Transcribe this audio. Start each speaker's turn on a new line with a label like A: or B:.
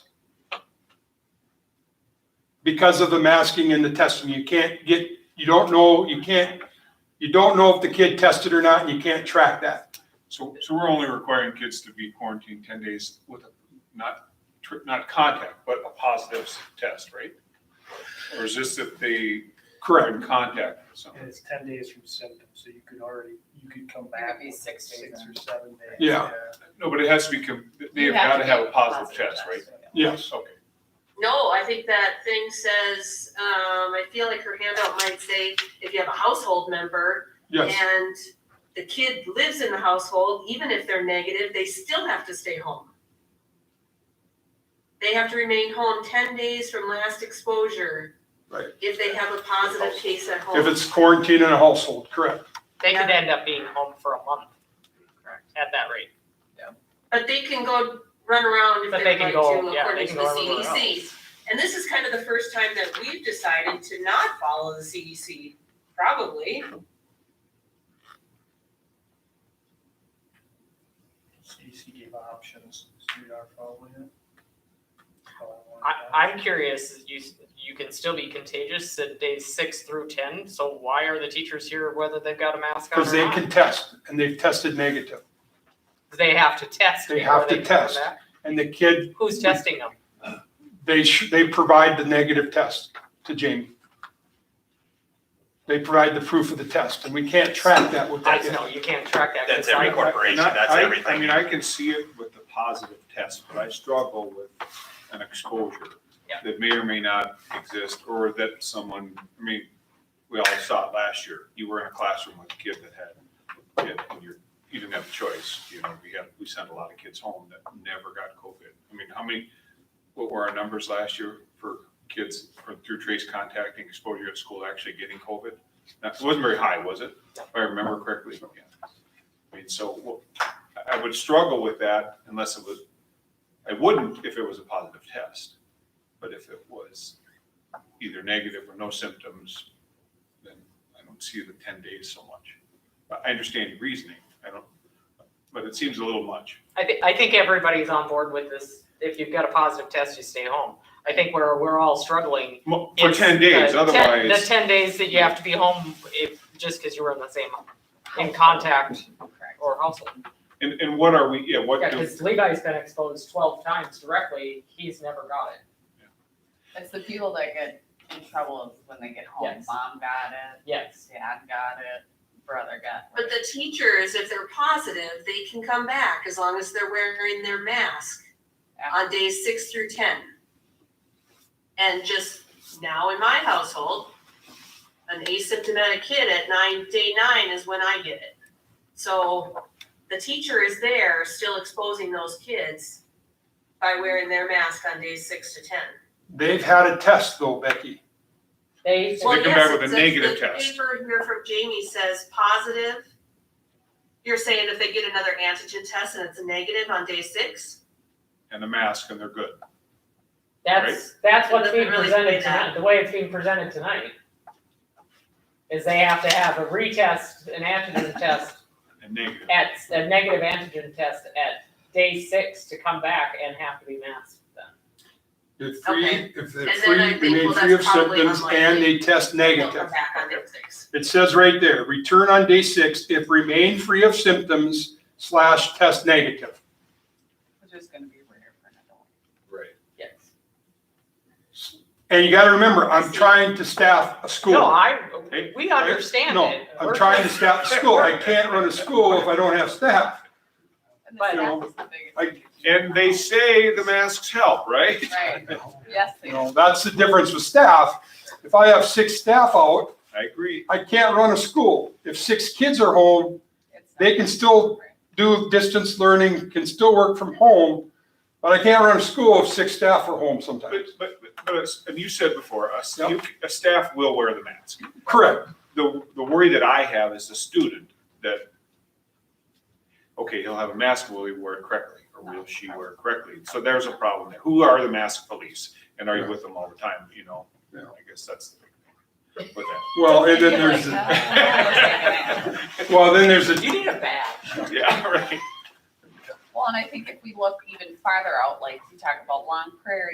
A: because of the masking and the testing. You can't get, you don't know, you can't, you don't know if the kid tested or not, and you can't track that.
B: So, so we're only requiring kids to be quarantined ten days with, a- not, tr- not contact, but a positive s- test, right? Or is this if they are
A: Correct.
B: in contact with someone?
C: And it's ten days from symptoms, so you could already, you could come back.
D: be
C: with
D: six days
C: Six or
D: after.
C: seven days.
A: Yeah.
B: No, but it has to be, com- they have got to have a positive test, right?
A: Yes.
B: Okay.
E: No, I think that thing says, um, I feel like her handout might say, if you have a household member
A: Yes.
E: and the kid lives in the household, even if they're negative, they still have to stay home. They have to remain home ten days from last exposure.
A: Right.
E: If they have a positive case at home.
A: If it's quarantine in a household, correct.
E: Uh-huh.
F: They could end up being home for a month. At that rate.
E: But they can go run around if
F: But
E: they
F: they
E: would like
F: can go-
E: to,
F: yeah,
E: according
F: they
E: to
F: can
E: the
F: go everywhere
E: CDC. And this is kind of the first time that we've decided to not follow the CDC, probably.
C: CDC gave options, so you are following it. Follow one
F: I,
C: of them.
F: I'm curious, you, you can still be contagious at days six through ten, so why are the teachers here whether they've got a mask on
A: Because they
F: or not?
A: can test and they've tested negative.
F: They have to test
A: They
F: before
A: have to
F: they can come
A: test.
F: back.
A: And the kid,
F: Who's testing them?
A: they, sh- they provide the negative test to Jamie. They provide the proof of the test and we can't track that with
F: I
A: that.
F: know, you can't track that. 'cause
G: That's every
F: I-
G: corporation,
B: And I-
G: that's
B: I-
G: everything.
B: I mean, I can see it with the positive test, but I struggle with an exposure
F: Yeah.
B: that may or may not exist, or that someone, I mean, we all saw it last year. You were in a classroom with a kid that had, it, and you're, you didn't have a choice, you know, we had, we sent a lot of kids home that never got COVID. I mean, how many, what were our numbers last year for kids for- through trace contacting exposure at school actually getting COVID? That wasn't very high, was it? If I remember correctly, yeah. I mean, so what- I would struggle with that unless it was, I wouldn't if it was a positive test. But if it was either negative or no symptoms, then I don't see the ten days so much. I- I understand your reasoning, I don't, but it seems a little much.
F: I think, I think everybody's on board with this, if you've got a positive test, you stay home. I think we're, we're all struggling
B: Mo- For
F: It's
B: ten
F: the
B: days,
F: 10 The
B: otherwise,
F: ten days that you have to be home if, just because you were in the same, in contact or household.
B: and, and what are we, yeah, what
F: Yeah,
B: do,
F: because Levi's been exposed twelve times directly, he's never got it.
D: It's the people that get in trouble when they get home.
F: Yes.
D: Mom got it,
F: Yes.
D: dad got it, brother got
E: But
D: it.
E: the teachers, if they're positive, they can come back as long as they're wearing their mask on days six through ten. And just now in my household, an asymptomatic kid at nine, day nine is when I get it. So the teacher is there still exposing those kids by wearing their mask on days six to ten.
A: They've had a test though, Becky.
F: They,
B: So they
E: Well,
B: come
E: yes,
B: back with a
E: it says
B: negative
E: the
B: test.
E: Paper here from Jamie says positive. You're saying if they get another antigen test and it's a negative on day six?
B: and a mask and they're good.
F: that's, that's what's
E: Doesn't
F: being
E: really say
F: presented
E: that.
F: tonight, the way it's being presented tonight. Is they have to have a retest, an antigen test
B: And negative,
F: at, a negative antigen test at day six to come back and have to be masked then.
A: If free,
E: Okay.
A: if they're
E: And then I
A: free,
E: think,
A: remain
E: well,
A: free of
E: that's probably
A: symptoms and
E: unlikely.
A: they test
E: They'll
A: negative.
E: come back on day six.
A: It says right there, return on day six if remain free of symptoms slash test negative.
D: Which is gonna be rare for an adult.
B: right?
F: Yes.
A: And you gotta remember, I'm trying to staff a
F: No,
A: school.
F: I,
B: Hey,
F: we understand
A: No,
F: it.
A: I'm
F: We're
A: trying to
F: just-
A: staff a school. I can't run a school if I don't have staff.
D: And
F: But-
D: the staff is the biggest
A: I-
D: issue.
B: And they say the masks help, right?
D: Right, yes, they
A: You know, that's the difference with staff. If I have six staff out,
B: I agree.
A: I can't run a school. If six kids are home,
D: it's
A: they
D: not-
A: can still-
D: Right.
A: do distance learning, can still work from home, but I can't run a school if six staff are home
B: But,
A: sometimes.
B: but, but, it's- and you said before, us,
A: Yep.
B: you, a staff will wear the mask.
A: Correct.
B: the, the worry that I have is the student that, okay, he'll have a mask, will he wear it correctly? Or will she wear it correctly? So there's a problem there. Who are the mask police? And are you with them all the time, you know?
A: Yeah.
B: I guess that's the big thing with that.
A: Well, and then there's, well, then there's a,
F: You need a badge.
B: Yeah, right.
D: Well, and I think if we look even farther out, like we talk about Long Prairie